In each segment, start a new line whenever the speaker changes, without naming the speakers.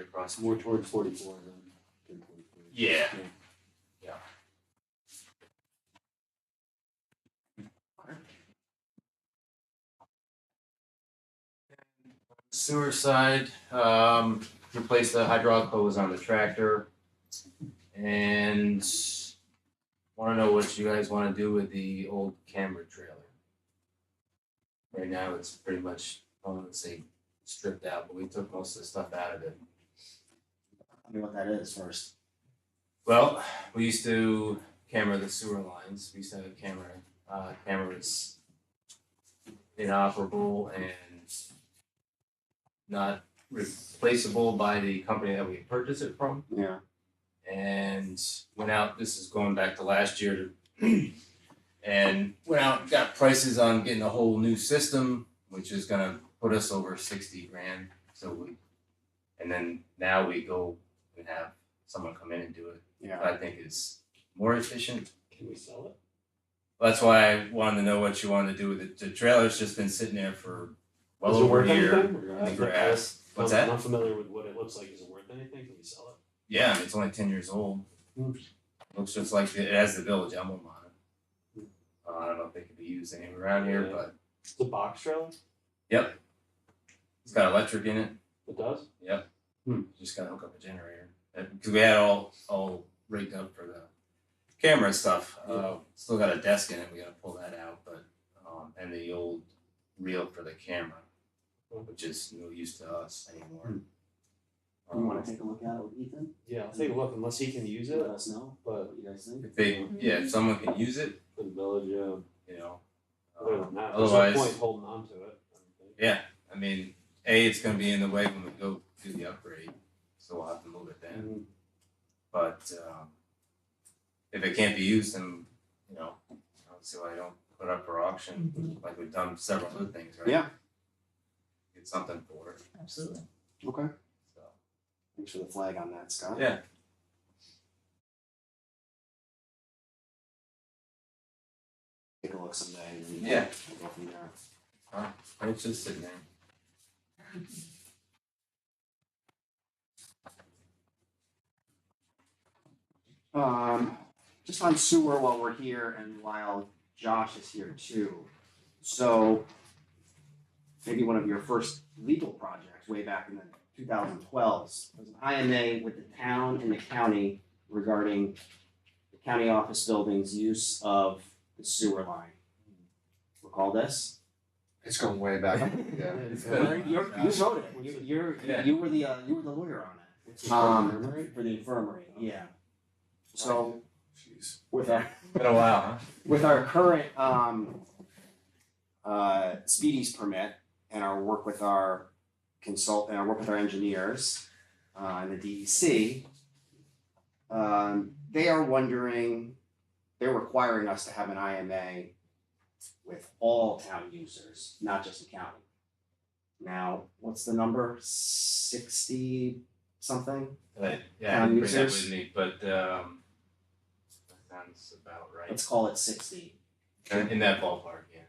across.
More towards forty-four than than forty-three.
Yeah.
Yeah.
Yeah. Sewer side, um, replace the hydraulic hose on the tractor. And wanna know what you guys wanna do with the old camera trailer. Right now, it's pretty much, I wouldn't say stripped out, but we took most of the stuff out of it.
I mean, what that is first.
Well, we used to camera the sewer lines. We used to have a camera. Uh, camera was inoperable and not replaceable by the company that we purchased it from.
Yeah.
And went out. This is going back to last year. To, and went out, got prices on getting a whole new system, which is gonna put us over sixty grand. So we, and then now we go and have someone come in and do it.
Yeah.
I think is more efficient.
Can we sell it?
That's why I wanted to know what you wanted to do with it. The trailer's just been sitting there for well
Does it
over
worth
a year
anything? Or, uh,
in the grass. What's
I'm
that?
not familiar with what it looks like. Is it worth anything? Can we sell
Yeah, I mean, it's only ten years old.
Hmm.
Looks just like the, it has the village emblem on it. Uh, I don't know if they could be used anywhere around here,
Yeah.
but
it? It's a box trailer?
it's got electric in it.
It does?
Just gotta hook up a generator because we had all all rigged up for the camera and stuff. Uh, still got a desk in it. We gotta pull that out, but um, and the old reel for the camera, which is no use to us anymore.
You want to
Um,
take a look at it with Ethan?
Yeah, I'll take a look unless he can use
Let
it.
us know
But
what you guys think.
if they, yeah, if someone can use it,
for the village, yeah,
you know.
other
uh,
than that, there's no
otherwise-
point holding on to it. I don't think.
yeah, I mean, a it's gonna be in the way when we go do the upgrade, so we'll have to move it then.
And
But um, if it can't be used, then you know, I don't see why I don't put up for auction like we've done several other things, right?
Yeah.
Get something for it.
Absolutely.
Okay.
So
Thanks for the flag on that, Scott.
yeah,
Take a look someday. And then
Yeah.
We'll go from there.
it's just sitting there.
Um, just on sewer while we're here and while Josh is here too. So maybe one of your first legal projects way back in the 2012s was an IMA with the town and the county regarding the county office building's use of the sewer line. Recall this?
It's going way back. Yeah.
It's
You're,
been-
you're- you voted. You're, you're- you were the, uh, you were the lawyer on it. Um, for the infirmary, yeah. So
Jeez.
with our,
been a while, huh?
with our current um uh speedies permit and our work with our consult and our work with our engineers uh and the DEC um they are wondering they're requiring us to have an IMA with all town users, not just the county. Now, what's the number? Sixty something?
But, yeah, I
Um,
didn't bring that
users.
with me, but um, that sounds about right.
Let's call it sixty.
In- In that ballpark, yeah.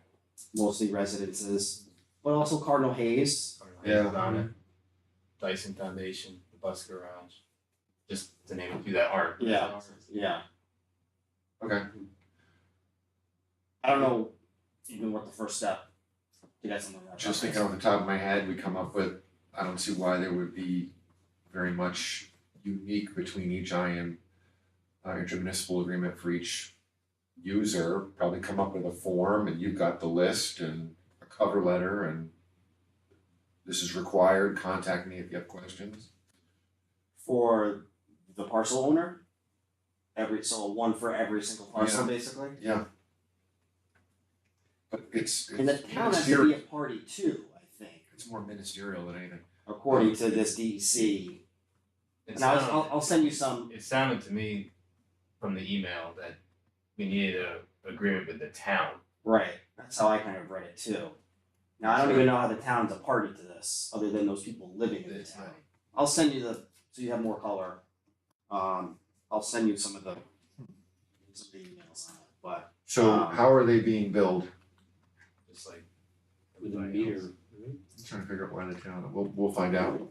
mostly residences, but also Cardinal Hayes.
Yeah.
On it. Dyson Foundation, the Bus Garage, just to name a few that aren't.
Yeah. Yeah.
Okay.
I don't know even what the first step to get something like that.
Just thinking off the top of my head, we come up with, I don't see why there would be very much unique between each IM, uh, intermunicipal agreement for each user. Probably come up with a form and you've got the list and a cover letter and this is required, contact me if you have questions.
for the parcel owner. Every so one for every single parcel,
Yeah.
basically.
Yeah. But it's,
And the
it's
town has to be
ministerial,
a party too, I think,
it's more ministerial than anything.
according to this E DEC.
It
And I'll,
sounded-
I'll, I'll send you some.
it sounded to me from the email that we needed a agreement with the town.
Right. That's how I kind of read it too. Now I don't even know how the town's a party to this, other than those people living in the
That's
town.
right.
I'll send you the so you have more color. Um, I'll send you some of the some of the emails on it, but
So
Um,
how are they being billed?
Just like
With a
everybody else.
meter, right?
I'm trying to figure out why the town, we'll, we'll find out.